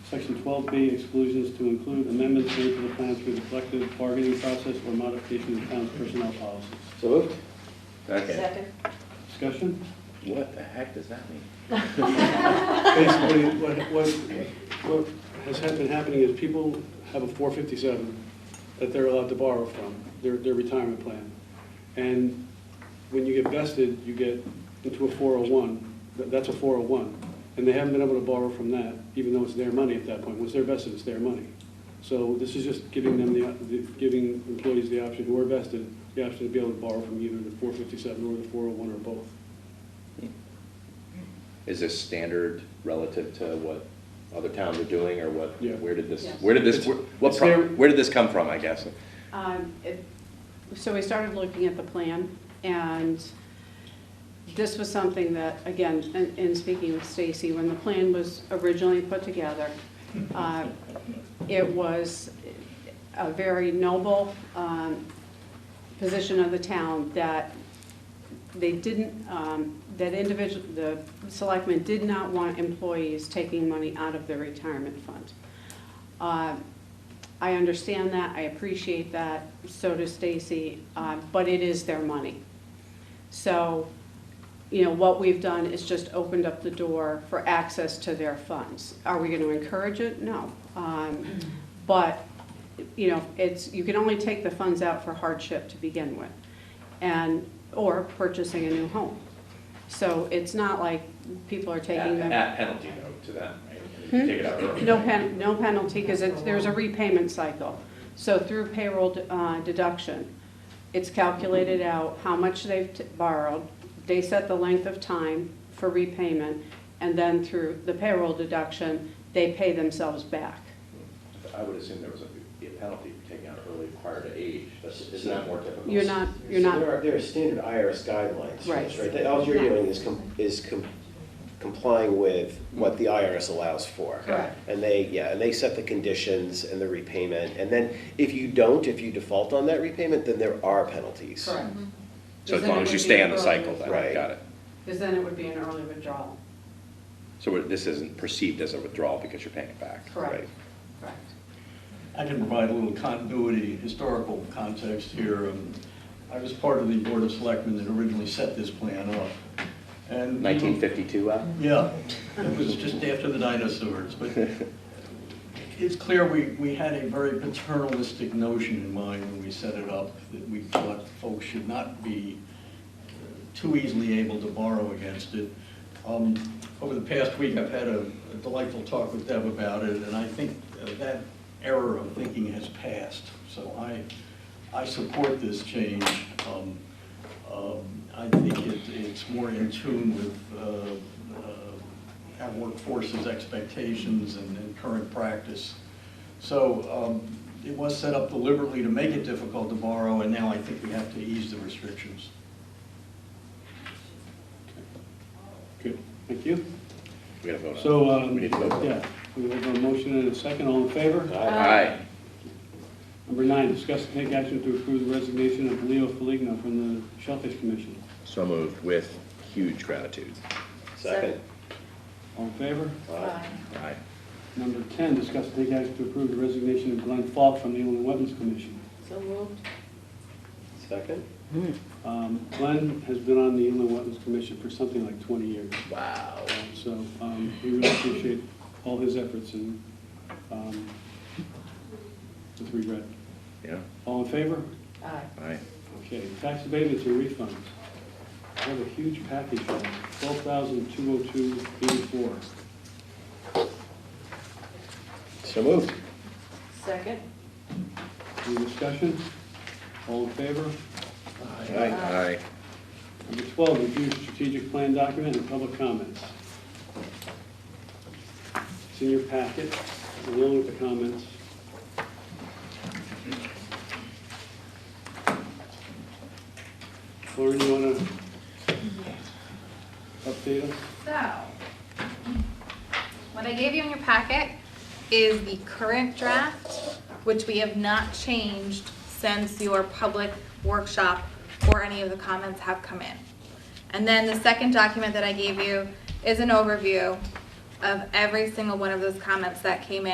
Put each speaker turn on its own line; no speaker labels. Section 12B exclusions to include amendments made to the plan through the collective bargaining process or modification of the town's personnel policies.
So moved.
Second.
Second.
Discussion?
What the heck does that mean?
Basically, what, what, what has had been happening is people have a four fifty-seven that they're allowed to borrow from, their, their retirement plan. And when you get vested, you get into a four oh one, that's a four oh one. And they haven't been able to borrow from that, even though it's their money at that point. Once they're vested, it's their money. So this is just giving them the, op- the- giving employees the option who are vested, the option to be able to borrow from either the four fifty-seven or the four oh one or both.
Is this standard relative to what other towns are doing, or what,
Yeah.
where did this,
Yes.
where did this,
It's-
what,
it's
pro-
their-
where did this come from, I guess?
Um, it- So we started looking at the plan, and this was something that, again, in- in speaking with Stacy, when the plan was originally put together, uh, it was a very noble um, position of the town that they didn't, um, that individual, the selectmen did not want employees taking money out of their retirement fund. Uh, I understand that, I appreciate that, so does Stacy, uh, but it is their money. So, you know, what we've done is just opened up the door for access to their funds. Are we going to encourage it? No. Um, But, you know, it's, you can only take the funds out for hardship to begin with, and, or purchasing a new home. So it's not like people are taking them.
penalty note to them, right?
Hmm?
Take it out early.
No pen, no penalty, because it's, there's a repayment cycle. So through payroll uh, deduction, it's calculated out how much they've t- borrowed. They set the length of time for repayment, and then through the payroll deduction, they pay themselves back.
I would assume there was a, be a penalty for taking out early prior to age, that's, isn't that more typical?
You're not, you're
So
not,
There are, there are standard IRS guidelines, for this,
Right.
right? That All you're doing is, com- is com- complying with what the IRS allows for.
Correct.
And they, yeah, and they set the conditions and the repayment, and then if you don't, if you default on that repayment, then there are penalties.
correct.
So as long as you stay on the cycle, then,
Right.
got it.
Because then it would be an early withdrawal.
So we're- this isn't perceived as a withdrawal because you're paying it back,
Correct.
right?
Correct.
I can provide a little continuity, historical context here. Um, I was part of the Board of Selectmen that originally set this plan up. and we
Nineteen
were-
fifty-two, Al?
yeah, it was just after the dinosaurs, but it's clear we, we had a very paternalistic notion in mind when we set it up, that we thought folks should not be uh, too easily able to borrow against it. Um, Over the past week, I've had a a delightful talk with Deb about it, and I think uh, that error of thinking has passed. So I, I support this change. Um, um, I think it- it's more in tune with uh, uh, our workforce's expectations and and current practice. So um, it was set up deliberately to make it difficult to borrow, and now I think we have to ease the restrictions.
Good, thank you.
We gotta vote on it.
So, um,
We need to vote.
yeah, we have a motion and a second, all in favor?
Uh,
Aye.
Number nine, discuss and take action to approve the resignation of Leo Feligno from the Shellfish Commission.
So moved with huge gratitude.
Second.
All in favor?
Aye.
Aye.
Number 10, discuss and take action to approve the resignation of Glenn Falk from the Inland Wetlands Commission.
So moved.
Second?
Um, Glenn has been on the Inland Wetlands Commission for something like 20 years,
Wow.
so um, we really appreciate all his efforts and um, with regret.
Yeah,
All in favor?
Aye.
aye.
Okay, tax abatements and refunds. I have a huge package here, twelve thousand two oh two eighty-four.
So moved.
Second.
Any discussion? All in favor?
Aye.
Number twelve, review strategic plan document and public comments. It's in your packet, along with the comments. Lauren, you wanna update us?
So, what I gave you in your packet is the current draft, which we have not changed since your public workshop or any of the comments have come in. And then the second document that I gave you is an overview of every single one of those comments that came in.